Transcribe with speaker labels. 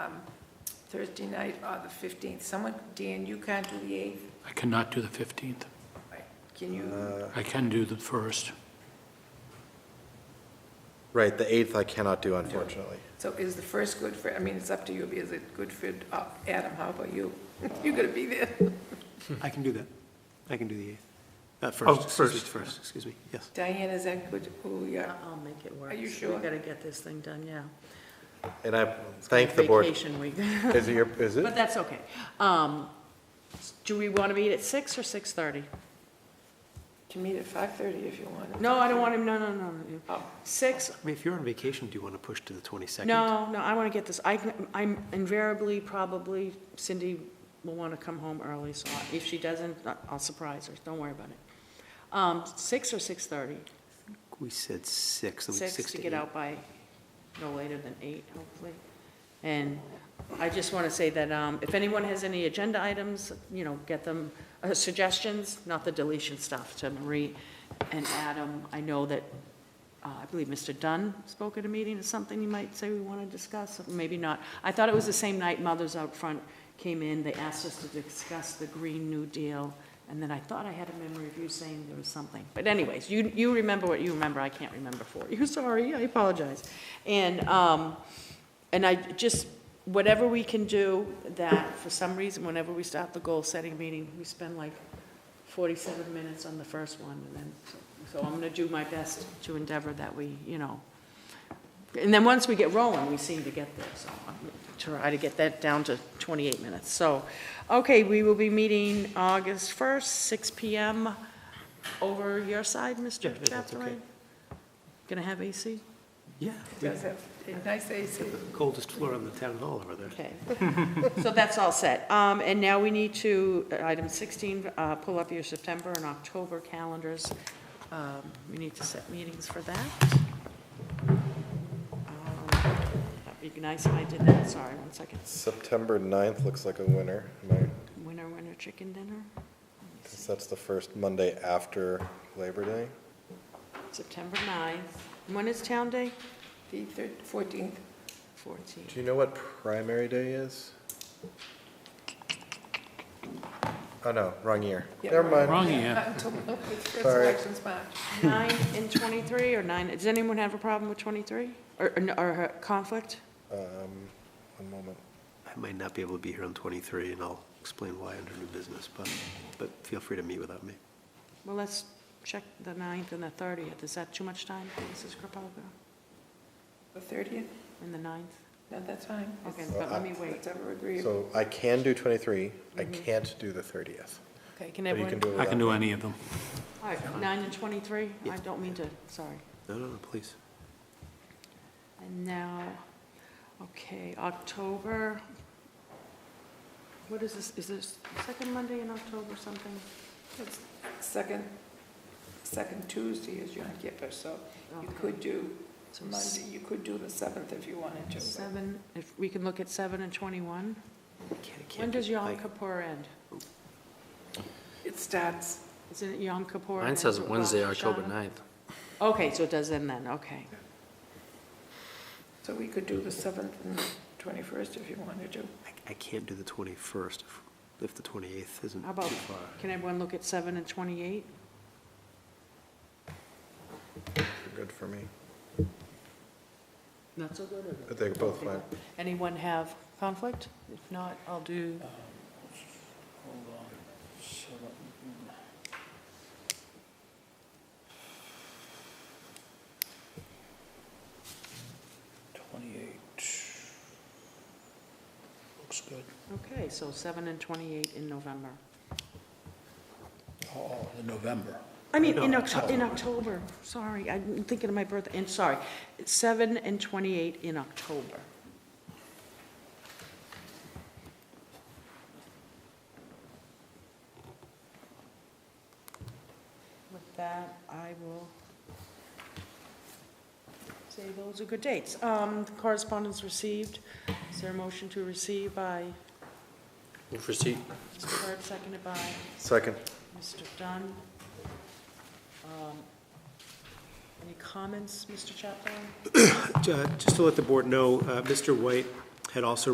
Speaker 1: um, Thursday night or the 15th. Someone, Dan, you can't do the 8th?
Speaker 2: I cannot do the 15th.
Speaker 1: Right. Can you,
Speaker 2: I can do the 1st.
Speaker 3: Right, the 8th I cannot do, unfortunately.
Speaker 1: so is the first good for, I mean, it's up to you, is it good for, uh, Adam, how about you? You're going to be there.
Speaker 4: I can do that. I can do the 8th. Uh, first.
Speaker 2: Oh,
Speaker 4: excuse me,
Speaker 2: first.
Speaker 4: First, excuse me, yes.
Speaker 1: Diane, is that good? Oh, yeah.
Speaker 5: I'll make it work.
Speaker 1: Are you sure?
Speaker 5: We gotta get this thing done, yeah.
Speaker 3: And I thank the board.
Speaker 5: Vacation week,
Speaker 3: Is it your, is
Speaker 5: but
Speaker 3: it?
Speaker 5: that's okay. Um, do we want to meet at six or six-thirty?
Speaker 1: You can meet at 5:30 if you want.
Speaker 5: No, I don't want to, no, no, no, no.
Speaker 1: Oh,
Speaker 5: Six,
Speaker 4: I mean, if you're on vacation, do you want to push to the 22nd?
Speaker 5: no, no, I want to get this, I, can- I'm invariably, probably Cindy will want to come home early, so if she doesn't, I- I'll surprise her, don't worry about it. Um, six or six-thirty?
Speaker 4: We said 6, so we-
Speaker 5: six to
Speaker 4: eight.
Speaker 5: get out by no later than eight, hopefully. And I just want to say that um, if anyone has any agenda items, you know, get them, uh, suggestions, not the deletion stuff, to Marie and Adam. I know that, uh, I believe Mr. Dunn spoke at a meeting or something you might say we want to discuss, or maybe not. I thought it was the same night Mothers Out Front came in, they asked us to discuss the Green New Deal, and then I thought I had a memory of you saying there was something. But anyways, you, you remember what you remember, I can't remember for you, sorry, I apologize. And, um, and I just, whatever we can do that, for some reason, whenever we start the goal-setting meeting, we spend like 47 minutes on the first one, and then, so I'm going to do my best to endeavor that we, you know. And then once we get rolling, we seem to get there, so I'm going to try to get that down to 28 minutes. So, okay, we will be meeting August 1st, 6 PM, over your side, Mr.
Speaker 4: Yeah, that's okay.
Speaker 5: Chaperon? Going to have AC?
Speaker 4: Yeah,
Speaker 1: it
Speaker 4: we
Speaker 1: does have a nice AC.
Speaker 4: have the coldest floor on the town hall over there.
Speaker 5: Okay, so that's all set. Um, And now we need to, uh, item 16, uh, pull up your September and October calendars. Um, We need to set meetings for that. Um, That'd be nice if I did that, sorry, one second.
Speaker 3: September 9th looks like a winner. Am I-
Speaker 5: Winner, winner, chicken dinner,
Speaker 3: since That's the first Monday after Labor Day.
Speaker 5: September 9th. When is Town Day?
Speaker 1: The thir- 14th,
Speaker 5: 14.
Speaker 3: Do you know what primary day is? Oh, no, wrong year.
Speaker 1: Yeah,
Speaker 3: Never mind.
Speaker 2: Wrong, yeah.
Speaker 1: until, no, it's first
Speaker 3: Sorry.
Speaker 1: election's March.
Speaker 5: 9 and 23, or 9, does anyone have a problem with 23? Or, or- or a conflict?
Speaker 3: Um, One moment.
Speaker 4: I might not be able to be here on 23, and I'll explain why under new business, but, but feel free to meet without me.
Speaker 5: Well, let's check the 9th and the 30th. Is that too much time, for Mrs. Kropalka?
Speaker 1: The 30th?
Speaker 5: And the 9th?
Speaker 1: No, that's fine.
Speaker 5: Okay,
Speaker 1: It's-
Speaker 5: but let me wait.
Speaker 1: It's ever agreeable.
Speaker 3: So I can do 23, I can't do the 30th.
Speaker 5: Okay, can
Speaker 3: But you
Speaker 5: everyone?
Speaker 3: can do it
Speaker 2: I
Speaker 3: without
Speaker 2: can do any of them.
Speaker 5: All right, 9 and 23? I don't mean to, sorry.
Speaker 4: No, no, no, please.
Speaker 5: And now, okay, October, what is this, is this second Monday in October something?
Speaker 1: It's Second, second Tuesday is Yom Kippur, so you
Speaker 5: Okay.
Speaker 1: could do
Speaker 5: So
Speaker 1: Monday, you could do the 7th if you wanted to. but-
Speaker 5: 7, if we can look at 7 and 21?
Speaker 4: I can't- I can't
Speaker 5: When
Speaker 4: do-
Speaker 5: does Yom
Speaker 4: I-
Speaker 5: Kippur end?
Speaker 1: It starts,
Speaker 5: Isn't it Yom Kippur? and
Speaker 6: Mine
Speaker 5: ends
Speaker 6: says
Speaker 5: with
Speaker 6: Wednesday,
Speaker 5: Rosh
Speaker 6: October
Speaker 5: Hashanah?
Speaker 6: 9th.
Speaker 5: Okay, so it does end then, okay.
Speaker 1: so we could do the 7th and the 21st if you wanted to.
Speaker 4: I- I can't do the 21st if, if the 28th isn't
Speaker 5: How about,
Speaker 4: too far.
Speaker 5: can everyone look at 7 and 28?
Speaker 3: They're Good for me.
Speaker 5: Not so good,
Speaker 3: But They're both fine.
Speaker 5: Anyone have conflict? If not, I'll do,
Speaker 7: Twenty-eight. Looks good.
Speaker 5: okay, so 7 and 28 in November.
Speaker 7: Oh, the November.
Speaker 5: I mean, in Octo, in October, sorry, I'm thinking of my birthday, and sorry, 7 and 28 in October. With that, I will say those are good dates. Um, Correspondence received, is there a motion to receive by
Speaker 6: Move for seat.
Speaker 5: Mr. Burt, seconded by
Speaker 3: Second.
Speaker 5: Mr. Dunn. Um, Any comments, Mr. Chaplin?
Speaker 4: Ju- Just to let the board know, uh, Mr. White had also